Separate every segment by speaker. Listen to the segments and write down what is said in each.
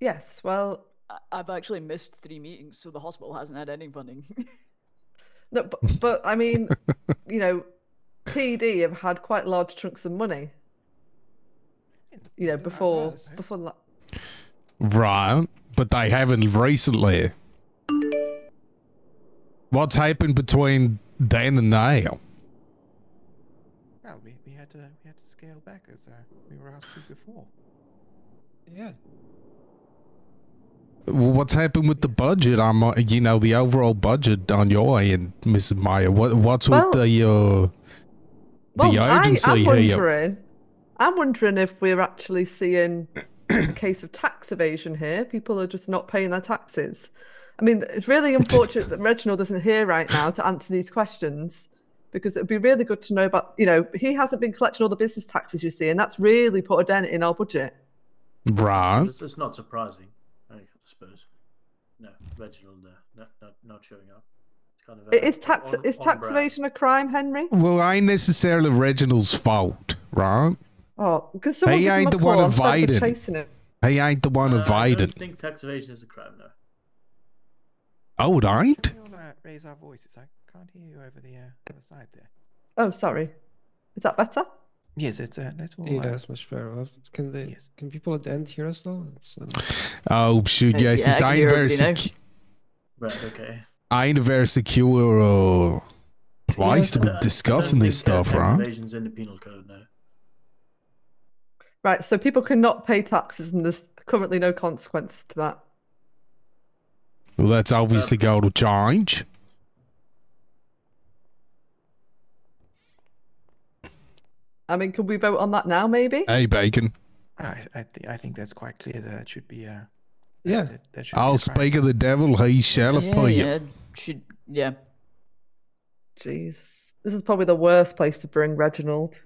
Speaker 1: Yes, well,
Speaker 2: I- I've actually missed three meetings, so the hospital hasn't had any funding.
Speaker 1: no, but, but I mean, you know, PD have had quite large chunks of money. You know, before
Speaker 3: nice.
Speaker 1: before la-
Speaker 4: Right, but they haven't recently. What's happened between then and now?
Speaker 3: Well, we, we had to we had to scale back as uh, we were asked to before.
Speaker 5: Yeah.
Speaker 4: Well, What's happened with the budget? I'm, uh, you know, the overall budget on your end, Mrs. Meyer. What, what's
Speaker 1: Well-
Speaker 4: with the uh,
Speaker 1: well,
Speaker 4: urgency
Speaker 1: I, I'm
Speaker 4: here.
Speaker 1: wondering, I'm wondering if we're actually seeing a case of tax evasion here. People are just not paying their taxes. I mean, it's really unfortunate that Reginald isn't here right now to answer these questions because it would be really good to know about, you know, he hasn't been collecting all the business taxes you see, and that's really put a dent in our budget.
Speaker 4: right?
Speaker 6: It's, it's not surprising, I suppose. No, Reginald, uh, not, not, not showing up. It's kind of. uh,
Speaker 1: is tax
Speaker 6: on-
Speaker 1: is
Speaker 6: on
Speaker 1: tax
Speaker 6: brand.
Speaker 1: evasion a crime, Henry?
Speaker 4: Well, ain't necessarily Reginald's fault, right?
Speaker 1: Oh, because someone
Speaker 4: He
Speaker 1: give him
Speaker 4: ain't
Speaker 1: a
Speaker 4: the one
Speaker 1: call instead of
Speaker 4: invited.
Speaker 1: chasing him.
Speaker 4: He ain't the one
Speaker 6: Uh, I
Speaker 4: invited.
Speaker 6: don't think tax evasion is a crime, no.
Speaker 4: Oh, it ain't.
Speaker 3: Can we all uh, raise our voices? I can't hear you over the uh, other side there.
Speaker 1: Oh, sorry. Is that better?
Speaker 3: Yes, it's uh, let's all.
Speaker 5: Yeah,
Speaker 3: uh,
Speaker 5: that's much better. Uh, Can they?
Speaker 3: Yes.
Speaker 5: Can people at the end hear us now? It's, uh,
Speaker 4: Oh shoot!
Speaker 2: Uh,
Speaker 4: Yes,
Speaker 2: yeah,
Speaker 4: it's
Speaker 2: I can
Speaker 4: I ain't
Speaker 2: hear
Speaker 4: very
Speaker 2: everybody now.
Speaker 4: secu-
Speaker 6: Right, okay.
Speaker 4: I ain't a very secure uh, place to
Speaker 6: I
Speaker 4: be
Speaker 6: don't- I
Speaker 4: discussing
Speaker 6: don't
Speaker 4: this
Speaker 6: think, uh,
Speaker 4: stuff,
Speaker 6: tax
Speaker 4: right?
Speaker 6: Evasion's in the penal code, no.
Speaker 1: Right, so people cannot pay taxes, and there's currently no consequences to that.
Speaker 4: Well, that's obviously going to change.
Speaker 1: I mean, can we vote on that now, maybe?
Speaker 4: Hey, Bacon.
Speaker 3: I I, th- I think that's quite clear. That it should be. Uh,
Speaker 5: yeah.
Speaker 3: that, that should be
Speaker 4: I'll
Speaker 3: a crime.
Speaker 4: speak of the devil; he shall
Speaker 2: yeah,
Speaker 4: appear.
Speaker 2: yeah, should yeah.
Speaker 1: Jeez, this is probably the worst place to bring Reginald.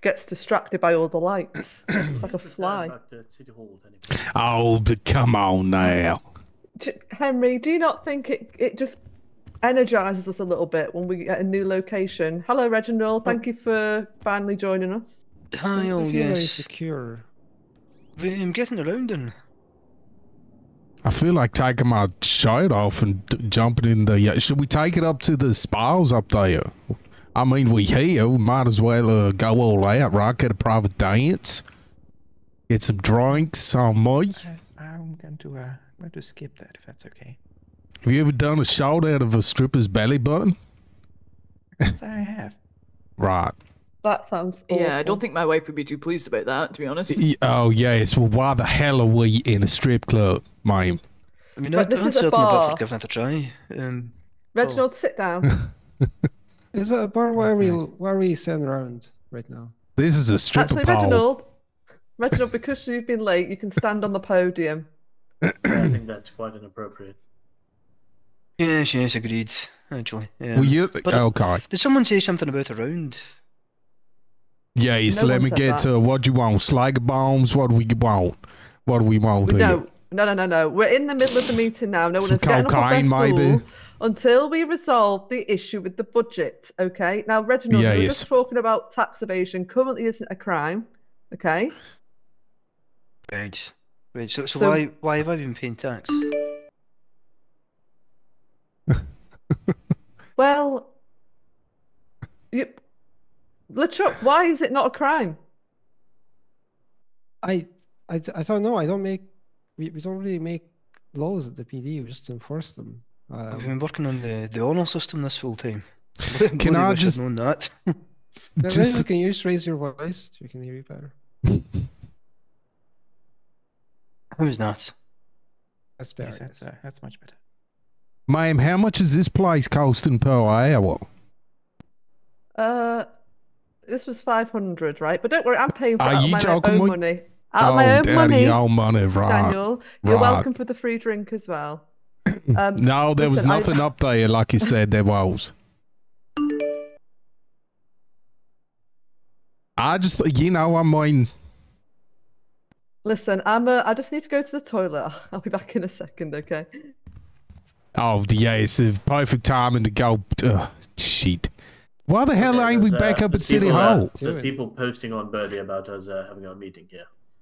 Speaker 1: Gets distracted by all the lights. It's like a fly.
Speaker 6: Back to City Hall with anybody.
Speaker 4: Oh, but come on now.
Speaker 1: J- Henry, do you not think it it just energizes us a little bit when we get a new location? Hello, Reginald. Thank you for finally joining us.
Speaker 5: I
Speaker 7: Hi,
Speaker 5: don't
Speaker 7: oh
Speaker 5: feel very
Speaker 7: yes.
Speaker 5: secure.
Speaker 7: But I'm getting around and
Speaker 4: I feel like taking my shirt off and d- jumping in the. Uh, should we take it up to the spas up there? I mean, we here. We might as well uh, go all out, right? Get a private dance. Get some drinks on me.
Speaker 3: Uh, I'm going to uh, I'm going to skip that if that's okay.
Speaker 4: Have you ever done a shot out of a stripper's belly button?
Speaker 3: Yes, I have.
Speaker 4: Right.
Speaker 1: That sounds awful.
Speaker 2: Yeah, I don't think my wife would be too pleased about that, to be honest.
Speaker 4: Y- Oh yes. Well, why the hell are we in a strip club, ma'am?
Speaker 7: I mean
Speaker 1: But
Speaker 7: I'd,
Speaker 1: this
Speaker 7: I'd
Speaker 1: is a
Speaker 7: certainly be up
Speaker 1: bar.
Speaker 7: for giving it a try. Um
Speaker 1: Reginald, sit down.
Speaker 5: Is that a bar where we where we stand around right now?
Speaker 4: This is a stripper
Speaker 1: Actually,
Speaker 4: pole.
Speaker 1: Reginald, Reginald, because you've been late, you can stand on the podium.
Speaker 6: I think that's quite inappropriate.
Speaker 7: Yes, yes, agreed. Actually.
Speaker 4: Well,
Speaker 7: Um,
Speaker 4: you
Speaker 7: but
Speaker 4: okay?
Speaker 7: did someone say something about around?
Speaker 4: Yes.
Speaker 1: No
Speaker 4: let
Speaker 1: one
Speaker 4: me
Speaker 1: said
Speaker 4: get
Speaker 1: that.
Speaker 4: to what do you want. Slag bombs. What do we want? What do we want here?
Speaker 1: No, no, no, no, no. We're in the middle of the meeting now. No one
Speaker 4: Some
Speaker 1: is getting up off their
Speaker 4: cocaine, maybe?
Speaker 1: stool until we resolve the issue with the budget. Okay. Now, Reginald, we we're
Speaker 4: Yes.
Speaker 1: just talking about tax evasion. Currently, isn't a crime. Okay.
Speaker 7: Right. Right, so, so
Speaker 1: So-
Speaker 7: why why have I been paying tax?
Speaker 1: Well, you, Luchuk, why is it not a crime?
Speaker 5: I I d- I don't know. I don't make we, we don't really make laws at the PD. We just enforce them.
Speaker 7: I've
Speaker 5: Um,
Speaker 7: been working on the, the honour system this full time.
Speaker 4: Can
Speaker 7: Bloody
Speaker 4: I
Speaker 7: wish I'd
Speaker 4: just-
Speaker 7: known that?
Speaker 5: then
Speaker 4: just-
Speaker 5: you can you just raise your voice? so We can hear you better.
Speaker 7: How was that?
Speaker 5: That's better.
Speaker 3: Yes, that's uh, that's much better.
Speaker 4: Ma'am, how much is this place costing per hour?
Speaker 1: Uh, this was 500, right? But don't worry, I'm paying for it
Speaker 4: Are
Speaker 1: out of
Speaker 4: you
Speaker 1: my
Speaker 4: joking
Speaker 1: own
Speaker 4: with-
Speaker 1: money. Out of my
Speaker 4: oh,
Speaker 1: own
Speaker 4: daddy,
Speaker 1: money.
Speaker 4: your money, right?
Speaker 1: Daniel. You're
Speaker 4: right.
Speaker 1: welcome for the free drink as well. Um,
Speaker 4: No, there was
Speaker 1: listen, I-
Speaker 4: nothing up there, like you said there was. I just, you know, I mean,
Speaker 1: Listen, I'm. Uh, I just need to go to the toilet. I'll be back in a second. Okay.
Speaker 4: oh yeah, it's the perfect timing to go. Ugh, shit. Why the hell
Speaker 6: Okay,
Speaker 4: ain't we
Speaker 6: there's,
Speaker 4: back
Speaker 6: uh,
Speaker 4: up at
Speaker 6: there's
Speaker 4: City
Speaker 6: people, uh,
Speaker 4: Hall?
Speaker 5: Do
Speaker 6: There's
Speaker 5: it.
Speaker 6: people posting on Birdie about us uh, having our meeting here.